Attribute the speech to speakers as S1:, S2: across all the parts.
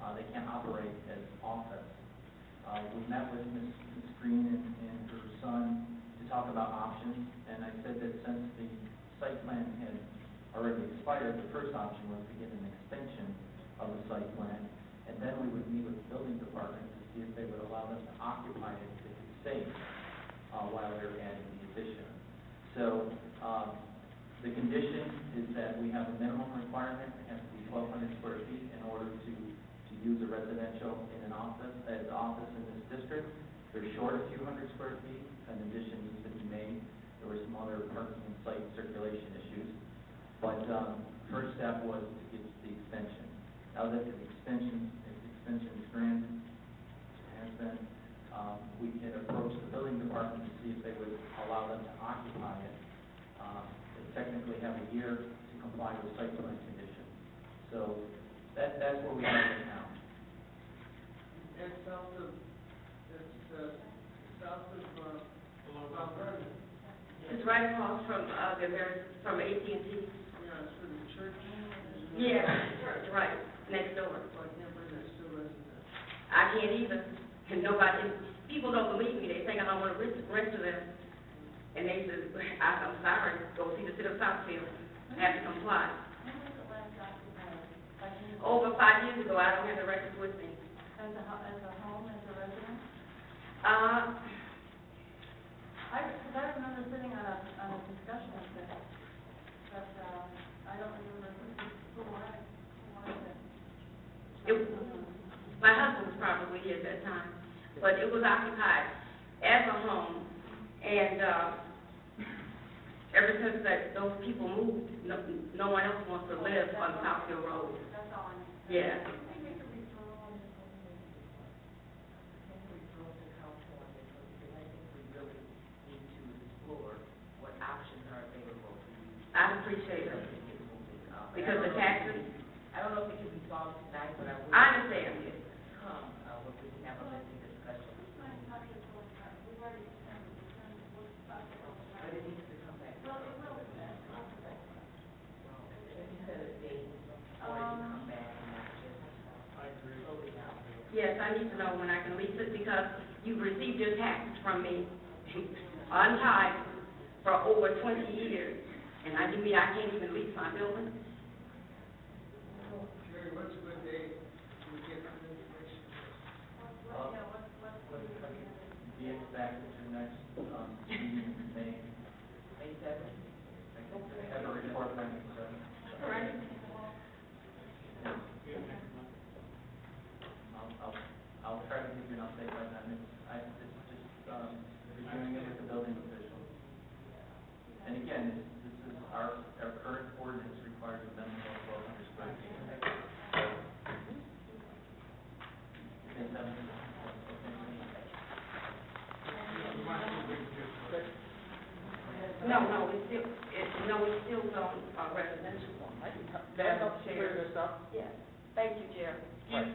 S1: can Uh, operate as office. Uh, we met with Ms. Ms. Green and, and her son to talk about options, and I said that since the site plan had already expired, the first option was to get an extension of the site plan, and then we would meet with the building department to see if they would allow them to occupy it if it's safe, uh, while they're adding the addition. So, um, the condition is that we have a minimum requirement, it has to be twelve hundred square feet in order to, to use a residential in an office, as office in this district. They're short a few hundred square feet, an addition needs to be made, there were some other parking and site circulation issues. But, um, first step was to get the extension. Now that the extension, if the extension is granted, has been, um, we can approach the building department to see if they would allow them to occupy it. Um, They technically have a year to comply with site plan conditions. So that, that's where we are right now.
S2: It's south of, it's, uh, south of, uh, Mount Vernon.
S3: It's right across from, uh, the very, from AT&T.
S2: Yeah, it's for the church.
S3: Yeah, church, right, next door.
S2: I can't believe they're still residents.
S3: I can't either, and nobody, people don't believe me, they think I don't want to rent, rent to them. And they says, I, I'm sorry, go see the city of Southfield, I have to comply.
S4: When was the last occupied? Like, you-
S3: Over five years ago, I don't have the records with me.
S4: As a, ho- as a home, as a residence?
S3: Uh,
S4: I, because I remember sitting on a, on a discussion of this, but, uh, I don't remember who, who wanted, who wanted it.
S3: It- my husband was probably here at that time, but it was occupied as a home, and, uh, ever since that, those people moved, no, no one else wants to live on Southfield Road.
S4: That's all I know.
S3: Yeah.
S4: I think it's a referral and it's only-
S5: we drove to California, because I think we really need to explore what options are available for you.
S3: I appreciate it. Because the taxes,
S5: I don't know if it can be solved tonight, but I would.
S3: I understand.
S5: Yes, Come, uh, when we can have a lengthy discussion, but it needs to come back. Well, it will. If you set a date, or you
S4: Um,
S5: come back and not just. I agree. Totally out.
S3: Yes, I need to know when I can lease it because you've received your taxes from me on time for over twenty years. And I, you mean I can't even lease my building?
S2: Jerry, what's a good day to get some information?
S1: Uh, Let's try to Be it back at your next, um, meeting in May.
S5: May seventh?
S1: I can Have a report back, so.
S3: Right.
S1: I'll, I'll, I'll try to give you an update by then, it's, I, it's just, um, reviewing it with the building officials. And again, this, this is our, our current ordinance requires a minimum of twelve hundred square feet. Is that-
S3: No, no, it's still, it, no, it's still zone uh, residential.
S6: Madam Chair.
S4: Yes, thank you, Jerry. No,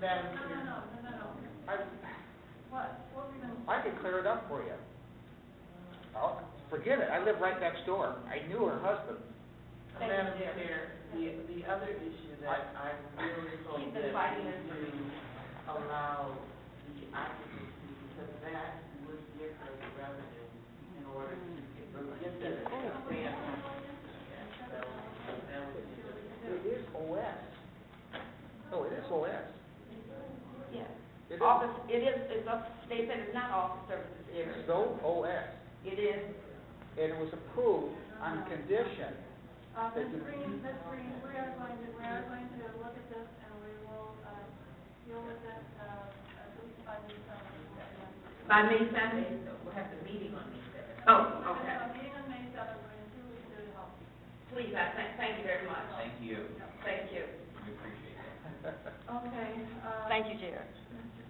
S6: Madam
S4: no,
S6: Chair,
S4: no, no, no, no.
S6: I,
S4: What, what were we gonna?
S6: I could clear it up for you. Oh, forget it, I live right next door. I knew her husband.
S4: Thank you,
S5: Madam
S4: Chair.
S5: Chair, the, the other issue that I really hope
S3: Keep the
S5: that
S3: fighting
S5: we
S3: this
S5: do allow the occupancy, because that would give her the revenue in order to get,
S4: Mm-hmm.
S5: get the expansion. So, that would be the.
S6: It is OS. Oh, it is OS.
S3: Yes.
S6: It is-
S3: Office, it is, it's up, they said it's not office services here.
S6: It's zone OS,
S3: It is,
S6: and it was approved on condition.
S4: Uh, Ms. Green, Ms. Green, we are going to, we are going to look at this and we will, uh, deal with it, uh, at least by the summer.
S3: by May seventh?
S5: We'll have the meeting on May seventh.
S3: Oh,
S4: We're gonna
S3: okay.
S4: have a meeting on May seventh, we're gonna see what we can do to help.
S3: Please, I thank, thank you very much. Thank you. Thank you.
S4: Okay, uh. Thank you, Jared. Mr.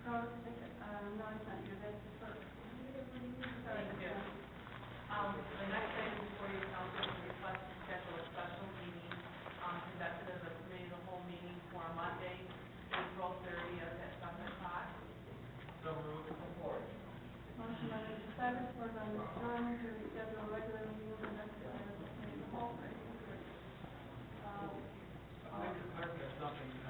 S4: Crowe, uh, no, it's not your, that's the first. Thank you.
S7: Um, the next item before you, council, is request to schedule a special meeting, um, conducted as a committee of the whole meeting for Monday, April thirtieth at seven o'clock.
S4: Motion by Mr. Cyrus, support by Ms. Jones, to reschedule a regular meeting